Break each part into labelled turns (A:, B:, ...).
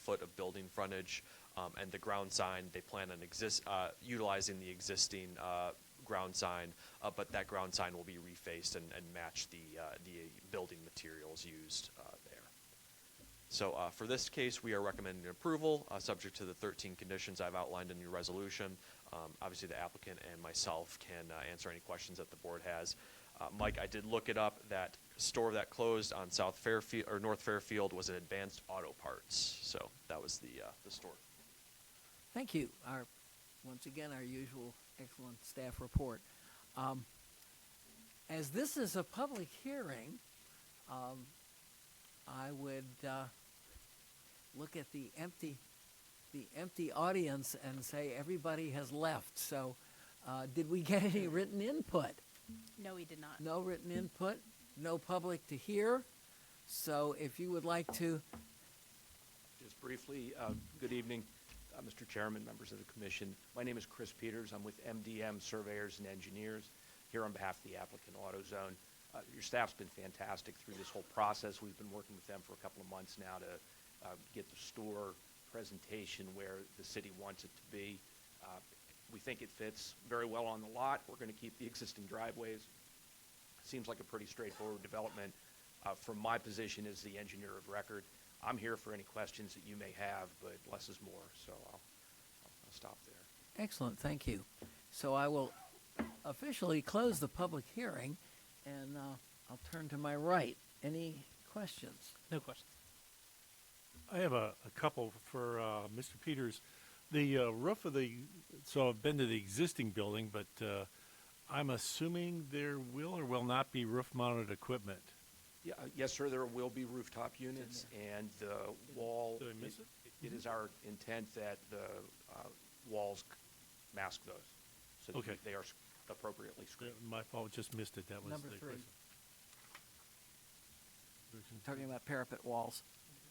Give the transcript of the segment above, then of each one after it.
A: foot of building frontage. Um, and the ground sign, they plan on exist, uh, utilizing the existing, uh, ground sign, uh, but that ground sign will be refaced and, and match the, uh, the building materials used, uh, there. So uh, for this case, we are recommending approval, uh, subject to the 13 conditions I've outlined in your resolution. Um, Obviously, the applicant and myself can uh, answer any questions that the board has. Uh, Mike, I did look it up, that store that closed on South Fairfield, or North Fairfield was an Advanced Auto Parts, so that was the, uh, the store.
B: Thank you. Our, once again, our usual excellent staff report. Um, as this is a public hearing, um, I would uh, look at the empty, the empty audience and say everybody has left. So, uh, did we get any written input?
C: No, he did not.
B: No written input, no public to hear. So, if you would like to,
D: Just briefly, uh, good evening, uh, Mr. Chairman, members of the commission. My name is Chris Peters. I'm with MDM Surveyors and Engineers, here on behalf of the applicant AutoZone. Uh, Your staff's been fantastic through this whole process. We've been working with them for a couple of months now to uh, get the store presentation where the city wants it to be. Uh, We think it fits very well on the lot. We're going to keep the existing driveways. Seems like a pretty straightforward development. Uh, From my position as the engineer of record, I'm here for any questions that you may have, but less is more, so I'll, I'll stop there.
B: Excellent, thank you. So I will officially close the public hearing, and uh, I'll turn to my right. Any questions?
E: No questions.
F: I have a, a couple for uh, Mr. Peters. The uh, roof of the, so I've been to the existing building, but uh, I'm assuming there will or will not be roof mounted equipment.
D: Yeah, uh, yes, sir, there will be rooftop units, and the wall.
F: Did I miss it?
D: It is our intent that the uh, walls c- mask those, so
F: Okay.
D: that they are s- appropriately
F: Uh,
D: screened.
F: My fault, just missed it. That was
B: Number
F: the
B: three.
F: question.
B: Talking about parapet walls.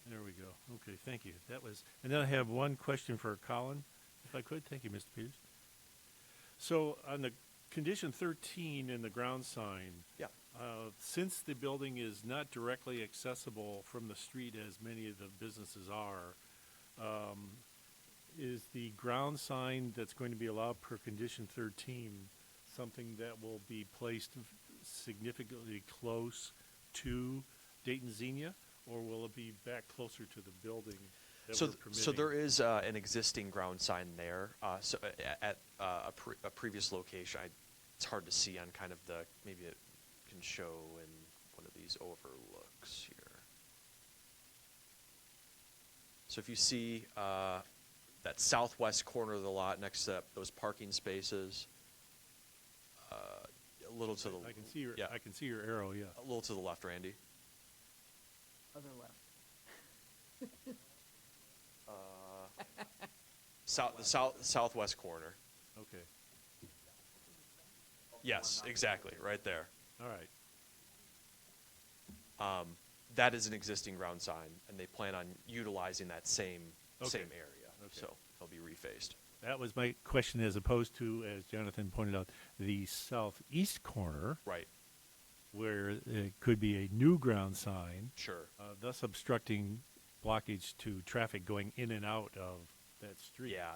F: There we go. Okay, thank you. That was, and then I have one question for Colin, if I could. Thank you, Mr. Peters. So on the condition 13 in the ground sign,
D: Yeah,
F: Uh, Since the building is not directly accessible from the street as many of the businesses are, um, is the ground sign that's going to be allowed per condition thirteen something that will be placed v- significantly close to Dayton Xenia? Or will it be back closer to the building that
A: So,
F: we're
A: th-
F: permitting?
A: so there is uh, an existing ground sign there. Uh, so uh, a- at uh, a, pre- a previous location, I, it's hard to see on kind of the maybe it can show in one of these overlooks here. So if you see uh, that southwest corner of the lot next to that- those parking spaces, uh, a little to the
F: I can see your,
A: yeah, Oh.
F: I can see your arrow, yeah.
A: a little to the left, Randy.
B: Other left.
A: South the south southwest corner.
F: Okay,
A: Yes, exactly, right there.
F: all right.
A: um, that is an existing ground sign, and they plan on utilizing that same,
F: Okay.
A: same area.
F: Okay.
A: So it'll be refaced.
F: That was my question as opposed to, as Jonathan pointed out, the southeast corner.
A: Right,
F: where it could be a new ground sign,
A: sure.
F: uh, thus obstructing blockage to traffic going in and out of that street.
A: Yeah,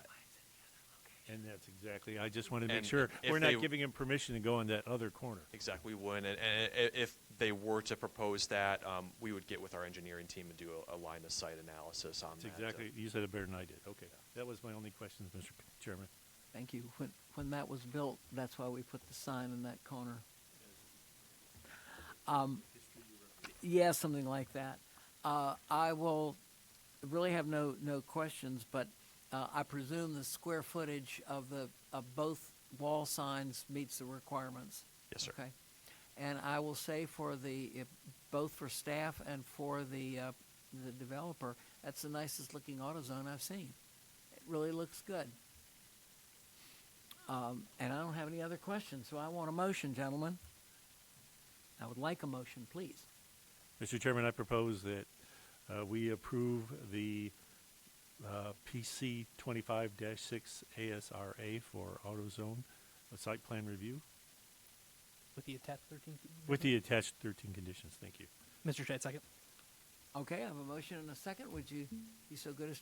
F: And that's exactly, I just wanted to make
A: And
F: sure
A: if
F: we're
A: they-
F: not giving him permission to go in that other corner.
A: exactly, we would. And, and i- if they were to propose that, um, we would get with our engineering team and do a, a line of sight analysis on
F: That's
A: that.
F: exactly, you said it better than I did. Okay. That was my only question, Mr. Chairman.
B: Thank you. When, when that was built, that's why we put the sign in that corner. Um, yeah, something like that. Uh, I will really have no, no questions, but uh, I presume the square footage of the of both wall signs meets the requirements.
A: Yes, sir.
B: Okay. And I will say for the if, both for staff and for the uh, the developer, that's the nicest looking AutoZone I've seen. It really looks good. Um, and I don't have any other questions, so I want a motion, gentlemen. I would like a motion, please.
F: Mr. Chairman, I propose that uh, we approve the uh, PC 25-6 ASRA for AutoZone uh, site plan review
E: With the attached 13.
F: with the attached 13 conditions. Thank you.
E: Mr. Shade, second.
B: Okay, I have a motion and a second. Would you be so good as to